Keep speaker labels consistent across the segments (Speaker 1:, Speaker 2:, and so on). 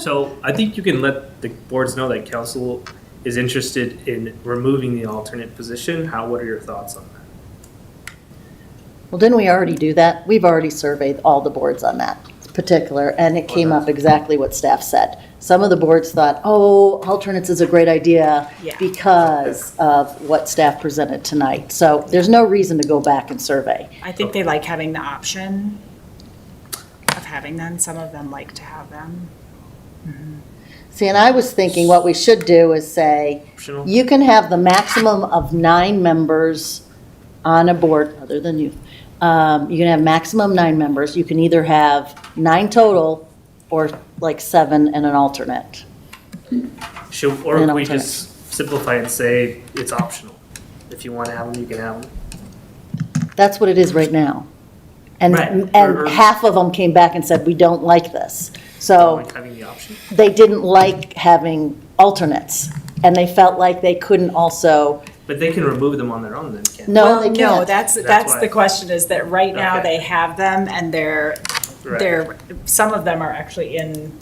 Speaker 1: So I think you can let the boards know that council is interested in removing the alternate position. How, what are your thoughts on that?
Speaker 2: Well, didn't we already do that? We've already surveyed all the boards on that particular, and it came up exactly what staff said. Some of the boards thought, oh, alternates is a great idea
Speaker 3: Yeah.
Speaker 2: because of what staff presented tonight. So there's no reason to go back and survey.
Speaker 3: I think they like having the option of having them. Some of them like to have them.
Speaker 2: See, and I was thinking what we should do is say,
Speaker 1: Optional?
Speaker 2: you can have the maximum of nine members on a board, other than you. Um, You can have maximum nine members. You can either have nine total or like seven and an alternate.
Speaker 1: Should, or
Speaker 2: An
Speaker 1: we
Speaker 2: alternate.
Speaker 1: just simplify and say it's optional. If you want to have them, you can have them.
Speaker 2: That's what it is right now. And,
Speaker 1: Right. Or- or-
Speaker 2: and half of them came back and said, we don't like this. So
Speaker 1: Like having the option.
Speaker 2: they didn't like having alternates, and they felt like they couldn't also,
Speaker 1: But they can remove them on their own then, can't
Speaker 2: no, they
Speaker 3: No,
Speaker 2: can't.
Speaker 3: that's,
Speaker 1: That's
Speaker 3: that's
Speaker 1: why.
Speaker 3: the question is that right now
Speaker 1: Okay.
Speaker 3: they have them and they're,
Speaker 1: Right.
Speaker 3: they're, some of them are actually in,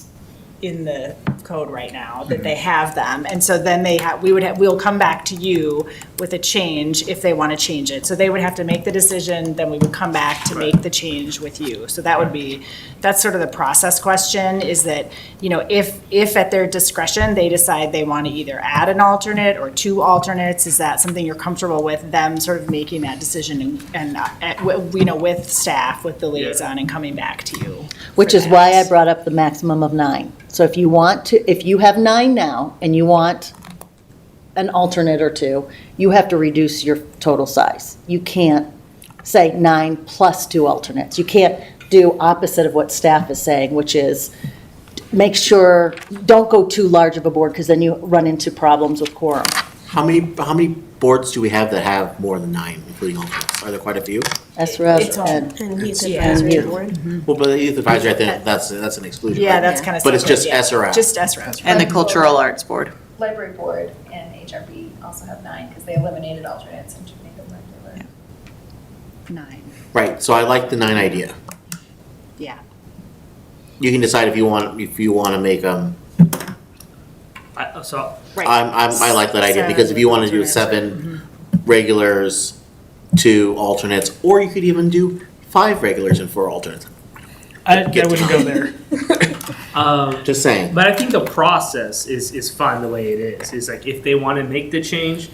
Speaker 3: in the code right now, that they have them. And so then they have, we would have, we'll come back to you with a change if they want to change it. So they would have to make the decision, then we would come back to make the change with you. So that would be, that's sort of the process question, is that, you know, if, if at their discretion, they decide they want to either add an alternate or two alternates, is that something you're comfortable with them sort of making that decision and- and, uh, at- w- you know, with staff, with the liaison and coming back to you?
Speaker 2: Which
Speaker 3: for
Speaker 2: is why I
Speaker 3: that?
Speaker 2: brought up the maximum of nine. So if you want to, if you have nine now and you want an alternate or two, you have to reduce your total size. You can't say nine plus two alternates. You can't do opposite of what staff is saying, which is make sure, don't go too large of a board because then you run into problems with quorum.
Speaker 4: How many, how many boards do we have that have more than nine, including alternates? Are there quite a few?
Speaker 2: SREB
Speaker 3: It's all-
Speaker 2: and
Speaker 5: And youth
Speaker 3: Yeah.
Speaker 5: advisory
Speaker 2: Youth.
Speaker 5: board.
Speaker 4: Well, but the youth advisory, I think that's, that's an exclusion.
Speaker 3: Yeah,
Speaker 4: right?
Speaker 3: that's kind of.
Speaker 4: But it's just SRO.
Speaker 3: Just SRO.
Speaker 6: And the Cultural Arts Board.
Speaker 7: Library board and HRB also have nine because they eliminated alternates and should make them regular.
Speaker 3: Nine,
Speaker 4: Right, so I like the nine idea.
Speaker 3: yeah.
Speaker 4: You can decide if you want, if you want to make, um,
Speaker 1: I, so
Speaker 3: Right.
Speaker 4: I'm, I'm, I like that idea, because if you want to do seven
Speaker 3: Mm-hmm.
Speaker 4: regulars, two alternates, or you could even do five regulars and four alternates.
Speaker 1: I, I
Speaker 4: Get to
Speaker 1: wouldn't go there. Um,
Speaker 4: Just saying.
Speaker 1: But I think the process is, is fine the way it is. It's like if they want to make the change,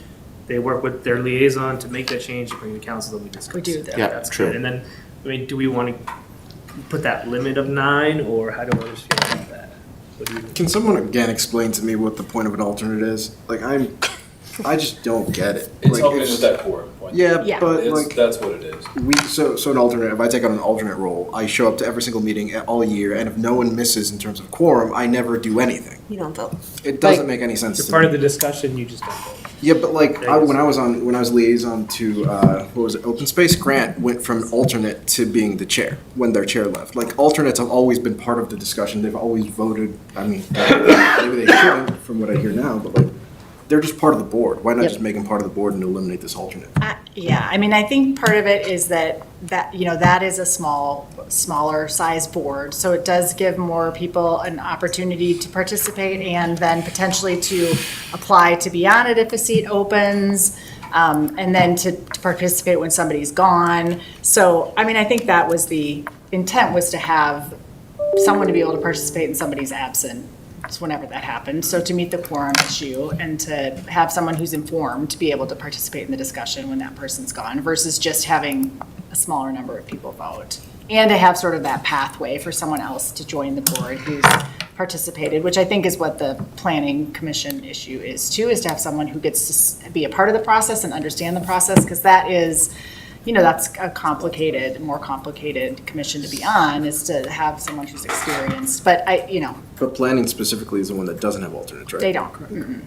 Speaker 1: they work with their liaison to make that change, bring the council, then we discuss.
Speaker 3: We do that.
Speaker 4: Yeah,
Speaker 1: That's
Speaker 4: true.
Speaker 1: good. And then, I mean, do we want to put that limit of nine or how do others feel about that? What do you-
Speaker 8: Can someone again explain to me what the point of an alternate is? Like I'm, I just don't get it.
Speaker 9: It's
Speaker 8: like,
Speaker 9: helping us that core point.
Speaker 8: Yeah,
Speaker 3: Yeah.
Speaker 8: but
Speaker 9: It's,
Speaker 8: like
Speaker 9: that's what it is.
Speaker 8: we so so an alternate. If I take on an alternate role, I show up to every single meeting all year, and if no one misses in terms of quorum, I never do anything.
Speaker 5: You don't vote.
Speaker 8: It doesn't make any sense.
Speaker 1: You're
Speaker 8: to
Speaker 1: part
Speaker 8: me.
Speaker 1: of the discussion, you just don't vote.
Speaker 8: Yeah, but like
Speaker 1: Yeah,
Speaker 8: I,
Speaker 1: yes.
Speaker 8: when I was on when I was liaison to uh, what was it? Open Space Grant went from alternate to being the chair when their chair left. Like alternates have always been part of the discussion. They've always voted. I mean, uh, maybe they shouldn't from what I hear now, but like they're just part of the board. Why not
Speaker 2: Yep.
Speaker 8: just make them part of the board and eliminate this alternate?
Speaker 3: I- Yeah, I mean, I think part of it is that, that, you know, that is a small, smaller size board. So it does give more people an opportunity to participate and then potentially to apply to be on it if a seat opens. um, And then to to participate when somebody's gone. So, I mean, I think that was the intent was to have someone to be able to participate and somebody's absent, just whenever that happens. So to meet the quorum issue and to have someone who's informed to be able to participate in the discussion when that person's gone versus just having a smaller number of people vote. And to have sort of that pathway for someone else to join the board who's participated, which I think is what the planning commission issue is too, is to have someone who gets to s- be a part of the process and understand the process, because that is, you know, that's a complicated, more complicated commission to be on, is to have someone who's experienced, but I, you know,
Speaker 8: But planning specifically is the one that doesn't have alternates, right?
Speaker 3: they don't. Mm-mm.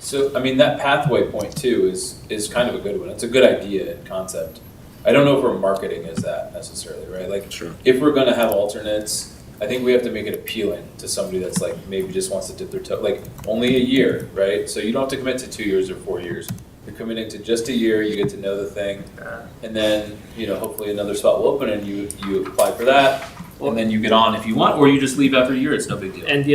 Speaker 9: So, I mean, that pathway point too is, is kind of a good one. It's a good idea and concept. I don't know if we're marketing as that necessarily, right? Like, if we're gonna have alternates, I think we have to make it appealing to somebody that's like, maybe just wants to dip their toe, like, only a year, right? So you don't have to commit to two years or four years. You're committing to just a year, you get to know the thing, and then, you know, hopefully another spot will open and you, you apply for that, and then you get on if you want, or you just leave after a year, it's no big deal.
Speaker 1: And the